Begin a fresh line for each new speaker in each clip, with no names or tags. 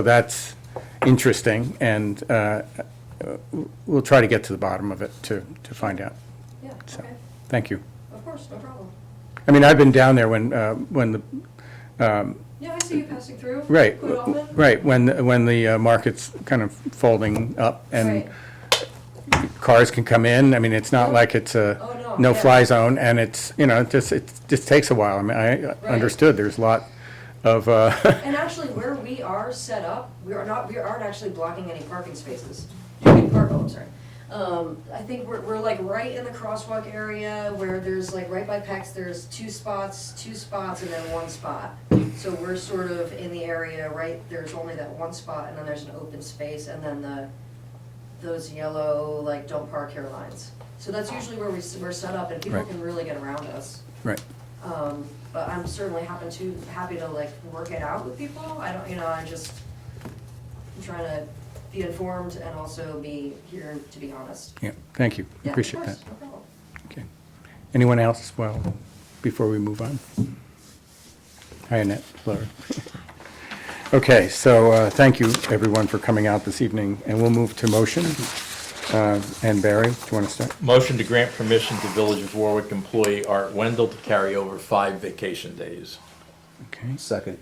So that's interesting, and uh, uh, we'll try to get to the bottom of it to, to find out.
Yeah,
So,
okay,
thank you.
of course, no problem.
I mean, I've been down there when, uh, when the,
Yeah, I see you passing through.
right,
Quite often.
right, when, when the uh, market's kind of folding up and
Right.
cars can come in. I mean, it's not like it's
Oh,
a
no,
no-fly
yeah.
zone, and it's, you know, it just, it just takes a while. I mean, I understood, there's a lot of, uh,
And actually, where we are set up, we are not, we aren't actually blocking any parking spaces. You can park, oh, I'm sorry. Um, I think we're, we're like right in the crosswalk area where there's like right by PAX, there's two spots, two spots and then one spot. So we're sort of in the area, right, there's only that one spot and then there's an open space and then the, those yellow, like, don't park here lines. So that's usually where we, s- we're set up and people
Right.
can really get around us.
right.
Um, but I'm certainly happen to, happy to like work it out with people, I don't, you know, I just, I'm trying to be informed and also be here to be honest.
Yeah, thank you,
Yeah, of
appreciate that.
course, no problem.
Okay. Anyone else, well, before we move on? Hi, Annette, Laura. Okay, so uh, thank you, everyone, for coming out this evening, and we'll move to motion. Uh, And Barry, do you want to start?
Motion to grant permission to Village of Warwick employee Art Wendell to carry over five vacation days.
Okay.
Second.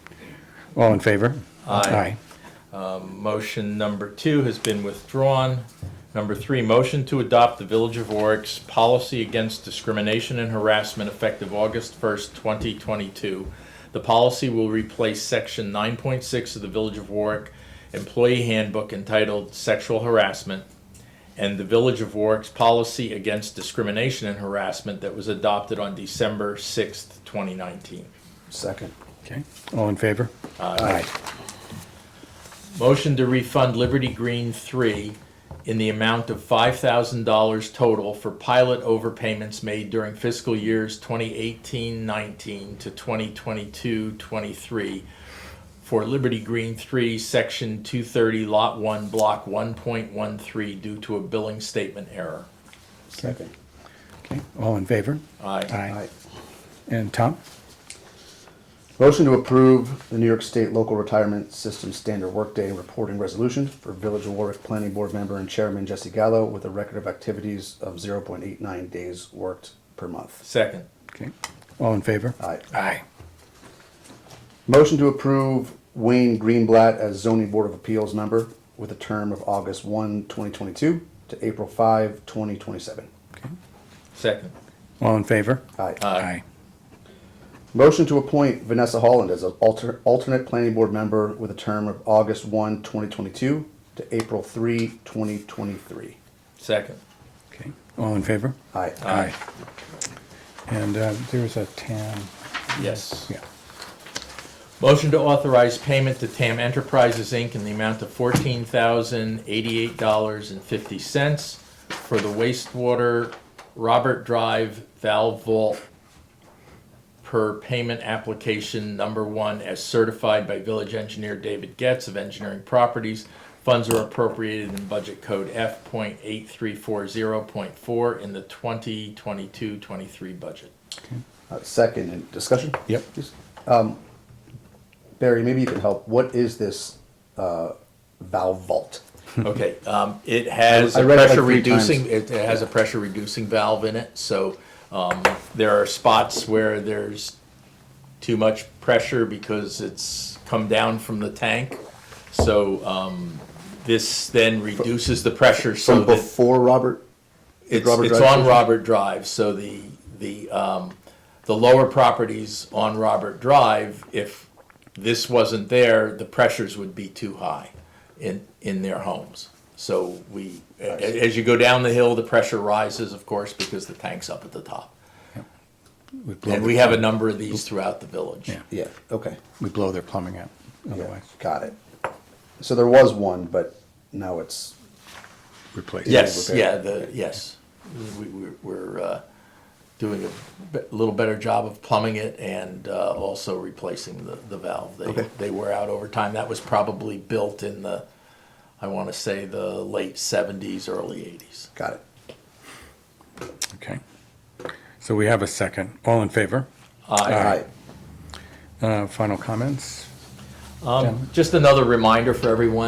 All in favor?
Aye. Um, Motion number two has been withdrawn. Number three, motion to adopt the Village of Warwick's policy against discrimination and harassment effective August 1st, 2022. The policy will replace section 9.6 of the Village of Warwick Employee Handbook entitled Sexual Harassment and the Village of Warwick's policy against discrimination and harassment that was adopted on December 6th, 2019.
Second.
Okay, all in favor? Aye.
Motion to refund Liberty Green three in the amount of five thousand dollars total for pilot overpayments made during fiscal years 2018-19 to 2022-23 for Liberty Green three, section two thirty, lot one, block one point one three, due to a billing statement error.
Second.
Okay, all in favor?
Aye.
Aye.
And Tom?
Motion to approve the New York State Local Retirement System Standard Workday Reporting Resolution for Village of Warwick Planning Board Member and Chairman Jesse Gallo with a record of activities of zero point eight nine days worked per month.
Second.
Okay, all in favor?
Aye.
Aye.
Motion to approve Wayne Greenblatt as zoning board of appeals member with a term of August 1, 2022, to April 5, 2027.
Second.
All in favor?
Aye.
Aye.
Motion to appoint Vanessa Holland as an alter, alternate planning board member with a term of August 1, 2022 to April 3, 2023.
Second.
Okay, all in favor?
Aye.
Aye.
And uh, there was a town,
Yes.
yeah.
Motion to authorize payment to TAM Enterprises, Inc. in the amount of fourteen thousand eighty-eight dollars and fifty cents for the wastewater Robert Drive valve vault per payment application number one as certified by village engineer David Getz of Engineering Properties. Funds are appropriated in budget code F point eight three four zero point four in the 2022-23 budget.
Uh, Second, and discussion? Um,
Yep.
Barry, maybe you can help. What is this uh, valve vault?
Okay, um, it has
I
a
read it like
pressure
three
reducing,
times.
it it has a pressure reducing valve in it, so, um, there are spots where there's too much pressure because it's come down from the tank. So, um, this then reduces the pressure so
From
that
before Robert?
it's,
Robert
it's
Drive
on
station?
Robert Drive, so the, the, um, the lower properties on Robert Drive, if this wasn't there, the pressures would be too high in, in their homes. So we, a- a- as you go down the hill, the pressure rises, of course, because the tank's up at the top.
We blow
And
their-
we have a number of these throughout the village.
Yeah.
Yeah, okay.
We blow their plumbing out
Yeah,
otherwise.
Got it. So there was one, but now it's,
Replace. it.
Yes,
repair.
yeah, the, yes. We, we're, we're, uh, doing a be- little better job of plumbing it and, uh, also replacing the, the valve. They, they wear out over time. That was probably built in the, I wanna say the late seventies, early eighties.
got it.
Okay. So we have a second. All in favor?
Uh,
Aye.
Uh, Final comments?
Um, Just another reminder for everyone